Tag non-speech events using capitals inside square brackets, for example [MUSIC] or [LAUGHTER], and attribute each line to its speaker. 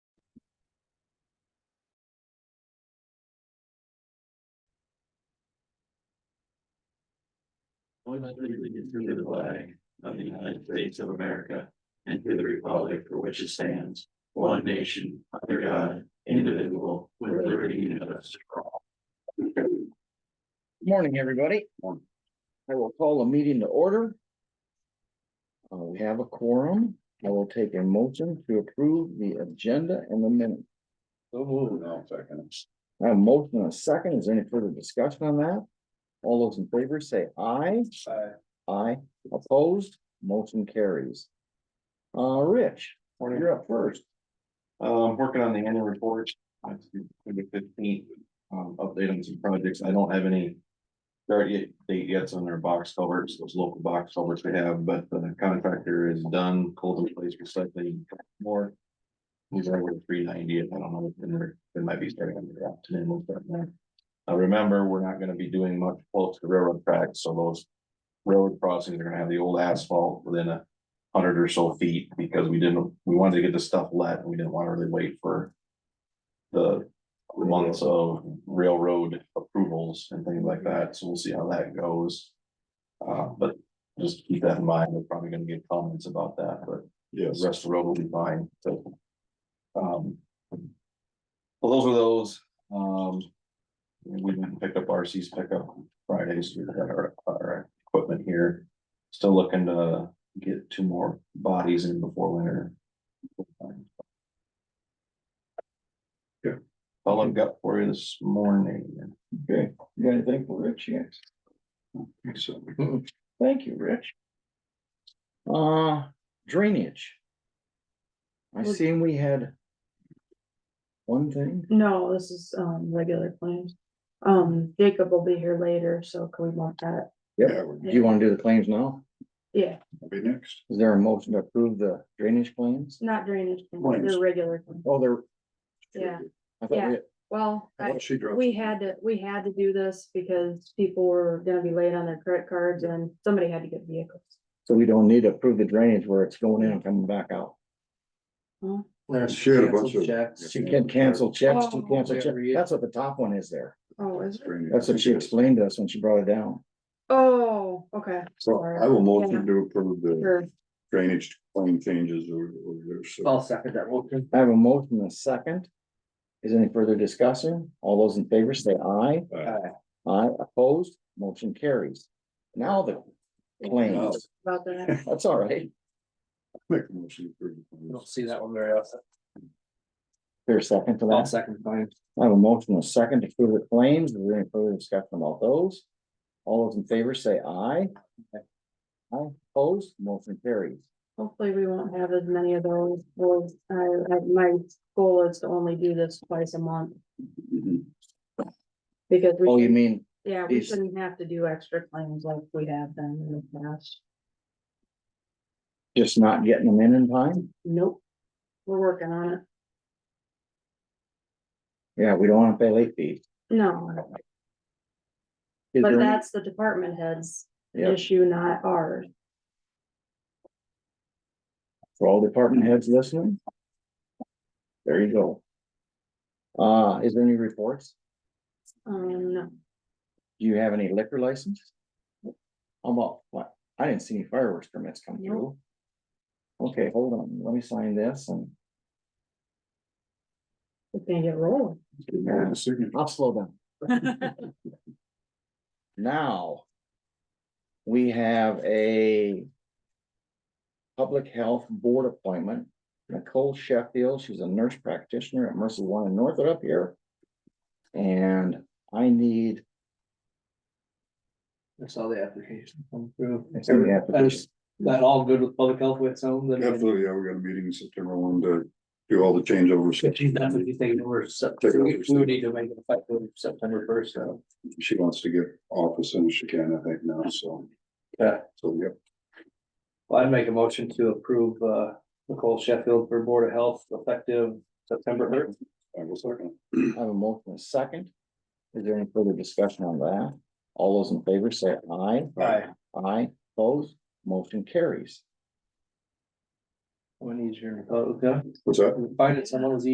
Speaker 1: Allegiance to the flag of the United States of America and to the republic for which it stands, one nation, under God, indivisible, with liberty and justice for all.
Speaker 2: Morning, everybody.
Speaker 1: Morning.
Speaker 2: I will call a meeting to order. Uh, we have a quorum. I will take a motion to approve the agenda and the minute. I have a motion and a second. Is there any further discussion on that? All those in favor say aye. Aye. Opposed, motion carries. Uh, Rich, you're up first.
Speaker 3: Um, working on the annual report, uh, to the fifteenth, um, update on some projects, I don't have any. Start yet, date yet on their box culverts, those local box culverts we have, but the contractor is done, cold in place recycling more. He's right with three ninety, I don't know, if there, there might be starting on the ground today, we'll start there. Uh, remember, we're not gonna be doing much close to railroad tracks, so those. Railroad crossings are gonna have the old asphalt within a hundred or so feet because we didn't, we wanted to get the stuff let and we didn't want to really wait for. The months of railroad approvals and things like that, so we'll see how that goes. Uh, but just keep that in mind, we're probably gonna get comments about that, but the rest of the road will be fine, so. Um. Well, those were those, um. We went and picked up RC's pickup Fridays, we got our, our equipment here. Still looking to get two more bodies in before winter.
Speaker 1: Yeah.
Speaker 3: All I've got for you this morning.
Speaker 1: Okay, you got anything for Rich? Yes. So,
Speaker 2: Thank you, Rich. Uh, drainage. I
Speaker 4: Was-
Speaker 2: seen we had one thing.
Speaker 4: No, this is, um, regular claims. Um, Jacob will be here later, so can we mark that?
Speaker 1: yeah,
Speaker 2: Do you want to do the claims now?
Speaker 4: Yeah,
Speaker 1: we'll be next.
Speaker 2: Is there a motion to approve the drainage claims?
Speaker 4: not drainage, claims,
Speaker 1: Claims.
Speaker 4: they're regular. claims.
Speaker 2: Oh, there.
Speaker 4: Yeah,
Speaker 2: I thought we,
Speaker 4: well, I-
Speaker 1: She dropped.
Speaker 4: we had to, we had to do this because people were gonna be late on their credit cards and somebody had to get vehicles.
Speaker 2: so we don't need to approve the drainage where it's going in and coming back out.
Speaker 1: She had a bunch of.
Speaker 2: She can cancel checks, she
Speaker 4: Oh.
Speaker 2: cancel checks. That's what the top one is there.
Speaker 4: Oh, is it?
Speaker 2: That's what she explained to us when she brought it down.
Speaker 4: Oh, okay.
Speaker 5: So
Speaker 4: Or-
Speaker 5: I will
Speaker 4: yeah.
Speaker 5: motion to approve the
Speaker 4: Sure,
Speaker 5: drainage claim changes or, or there's.
Speaker 2: Oh,
Speaker 6: I'll second that motion.
Speaker 2: I have a motion and a second. Is any further discussion? All those in favor say aye.
Speaker 5: uh,
Speaker 2: Aye opposed, motion carries. Now the claims,
Speaker 4: about
Speaker 5: [LAUGHS]
Speaker 4: that.
Speaker 2: that's all right.
Speaker 5: Make a motion to
Speaker 6: I
Speaker 5: approve.
Speaker 6: don't see that one very often.
Speaker 2: There's a second to
Speaker 6: I'll
Speaker 2: that.
Speaker 6: second mine.
Speaker 2: I have a motion and a second to approve the claims. Is there any further discussion about those? All those in favor say aye. Aye opposed, motion carries.
Speaker 4: Hopefully we won't have as many of those. Well, I, I, my goal is to only do this twice a month
Speaker 5: Mhm.
Speaker 4: because. we
Speaker 2: Oh,
Speaker 4: should-
Speaker 2: you mean
Speaker 4: Yeah, we
Speaker 2: Is-
Speaker 4: shouldn't have to do extra claims like we have done in the past.
Speaker 2: just not getting them in in time?
Speaker 4: Nope. We're working on it.
Speaker 2: Yeah, we don't want to pay late fees.
Speaker 4: No,
Speaker 2: Is
Speaker 4: but
Speaker 2: there any-
Speaker 4: that's the department head's
Speaker 2: Yeah,
Speaker 4: issue, not ours.
Speaker 2: for all department heads listening. There you go. Uh, is there any reports?
Speaker 4: Um, no.
Speaker 2: Do you have any liquor license? How about, what? I didn't see any fireworks permits come through. Okay, hold on, let me sign this and
Speaker 4: we can't get rolling.
Speaker 5: Yeah, the signature.
Speaker 2: I'll slow down. Now. We have a. Public Health Board appointment, Nicole Sheffield, she's a nurse practitioner at Mercy One in Northwood up here. And I need,
Speaker 6: I saw the application come through.
Speaker 2: I see the application.
Speaker 6: Is That all good with public health with some, then.
Speaker 5: Absolutely, yeah, we got a meeting September one to do all the changeovers.
Speaker 6: She's done with anything that we're September, we we would need to make it effective September first, so.
Speaker 5: She wants to get off as soon as she can, I think now, so,
Speaker 6: Yeah,
Speaker 5: so, yep.
Speaker 6: well, I'd make a motion to approve, uh, Nicole Sheffield for Board of Health effective September first.
Speaker 5: I will second.
Speaker 2: I have a motion and a second. Is there any further discussion on that? All those in favor say aye.
Speaker 6: Aye.
Speaker 2: Aye, opposed, motion carries.
Speaker 6: One easier, okay,
Speaker 5: What's that?
Speaker 6: Oh, finding someone was